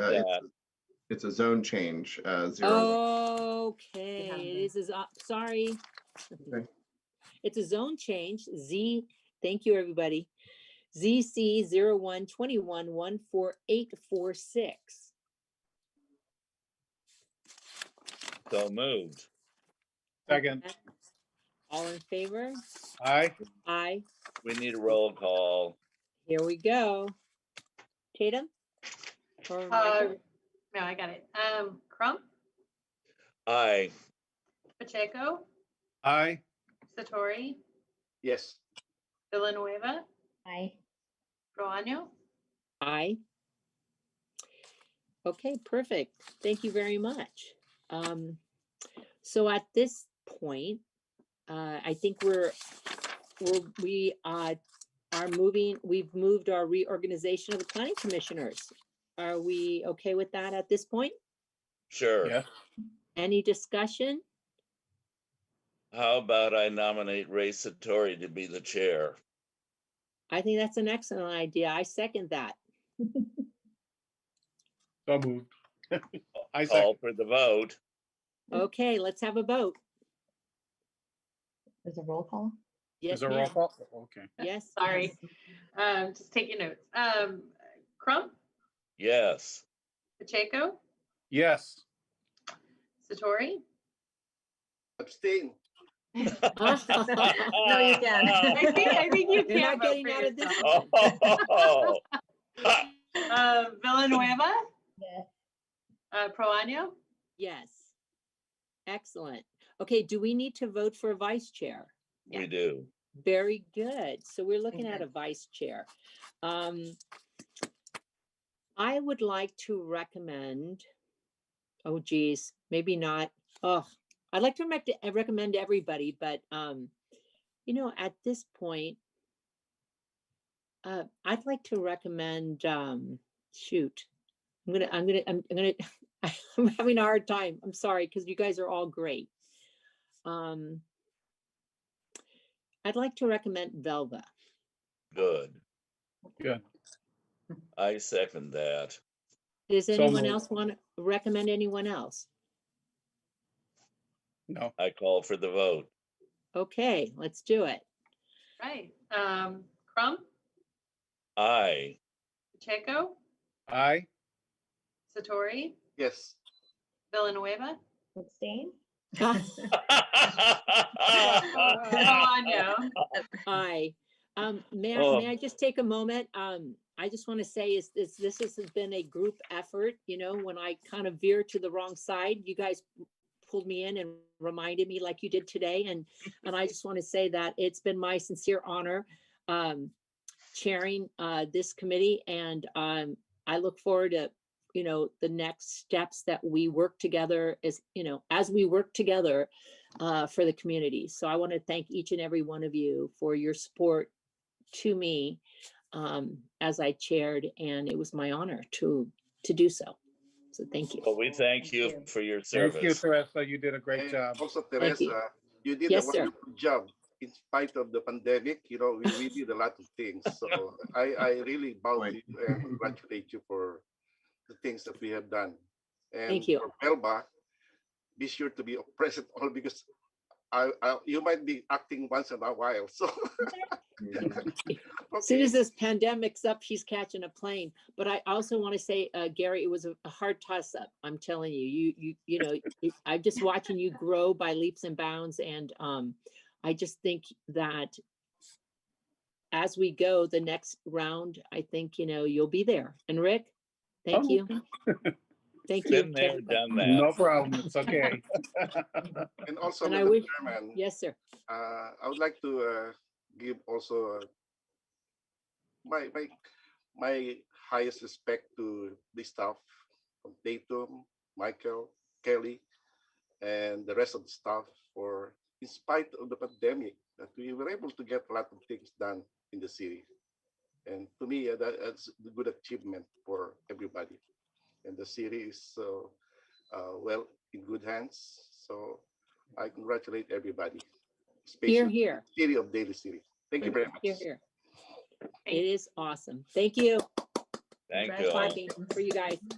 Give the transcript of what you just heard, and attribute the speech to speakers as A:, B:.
A: Uh, it's- It's a zone change, uh,
B: Oh.
A: zero.
B: Okay, it is, is, sorry.
A: Okay.
B: It's a zone change, Z, thank you, everybody. ZC zero one twenty-one one four eight four six.
C: So moved.
D: Second,
B: All in favor?
D: aye,
B: Aye,
C: We need a roll call.
B: here we go. Tatum? Or Michael?
E: Uh, No, I got it. Um, Crump,
C: Aye.
E: Pacheco,
D: aye,
E: Satori,
F: Yes.
E: Villanueva,
B: Aye.
E: Proano,
B: Aye. Okay, perfect. Thank you very much. Um, so at this point, uh, I think we're, we're, we, uh, are moving, we've moved our reorganization of the planning commissioners. Are we okay with that at this point?
C: Sure.
D: yes,
B: Any discussion?
C: How about I nominate Ray Satori to be the chair?
B: I think that's an excellent idea. I second that.
D: so moved. I second,
C: Call for the vote.
D: Mm.
B: Okay, let's have a vote.
G: There's a roll call?
B: Yes,
D: is there roll
B: ma'am.
D: call? Okay,
B: Yes.
E: sorry. Um, just taking notes. Um, Crump,
C: Yes.
E: Pacheco,
D: yes,
E: Satori,
F: Abstain.
G: No, you can't.
E: I think, I think you
B: You're
E: can
B: not
E: vote
B: getting
E: for
B: out of this.
E: yourself.
C: Oh. Ha,
E: Uh, Villanueva,
G: Yes.
E: uh, Proano,
B: Yes. Excellent. Okay, do we need to vote for a vice chair?
C: We do.
B: Very good. So we're looking at
G: Okay.
B: a vice chair. Um, I would like to recommend, oh geez, maybe not. Oh, I'd like to rec- uh, recommend to everybody, but, um, you know, at this point, uh, I'd like to recommend, um, shoot, I'm gonna, I'm gonna, I'm I'm gonna, I'm having a hard time. I'm sorry, because you guys are all great. Um, I'd like to recommend Velva.
C: Good.
D: Good.
C: I second that.
B: Does
D: So
B: anyone
D: moved.
B: else want to recommend anyone else?
D: no,
C: I call for the vote.
B: Okay, let's do it.
E: right. Um, Crump,
C: Aye.
E: Pacheco,
D: aye,
E: Satori,
F: Yes.
E: Villanueva,
G: Abstain?
E: Proano.
B: Hi. Um, may I,
C: Oh.
B: may I just take a moment? Um, I just want to say is, is this has been a group effort, you know, when I kind of veer to the wrong side, you guys pulled me in and reminded me like you did today. And, and I just want to say that it's been my sincere honor, um, chairing, uh, this committee and, um, I look forward to, you know, the next steps that we work together as, you know, as we work together uh, for the community. So I want to thank each and every one of you for your support to me um, as I chaired, and it was my honor to to do so. So thank you.
C: Well, we thank you
G: you.
C: for your
D: thank you,
C: service.
D: Teresa, you did a great
F: And
D: job.
F: Also,
B: Thank you.
F: Teresa, you did a
B: Yes, sir.
F: wonderful job in spite of the pandemic. You know, we, we did a lot of things. So I, I really bow to
A: Right.
F: you and congratulate you for the things that we have done.
B: Thank
F: And
B: you.
F: for Melba, be sure to be present all because I, I, you might be acting once in a while. So.
B: As soon
F: Okay.
B: as this pandemic's up, she's catching a plane. But I also want to say, uh, Gary, it was a, a hard toss up. I'm telling you, you, you, you know, it- I'm just watching you grow by leaps and bounds. And um, I just think that as we go the next round, I think, you know, you'll be there. And Rick, thank
D: Oh.
B: you. Thank you.
C: Been
B: to
C: there,
B: everybody.
C: done that.
D: No problem, it's okay.
F: And also,
B: And I
F: Madam
B: wish-
F: Chairman,
B: Yes, sir.
F: uh, I would like to uh, give also uh, my my my highest respect to the staff of Datum, Michael, Kelly, and the rest of the staff for, in spite of the pandemic, that we were able to get a lot of things done in the city. And to me, uh, that, that's a good achievement for everybody. And the city is uh, uh, well in good hands. So I congratulate everybody.
B: Here,
F: especially
B: here,
F: City of Daly City. Thank you very much.
B: here, here.
E: Thank
B: It is awesome. Thank you.
C: Thank you.
B: Clapping
C: all.
B: For you guys.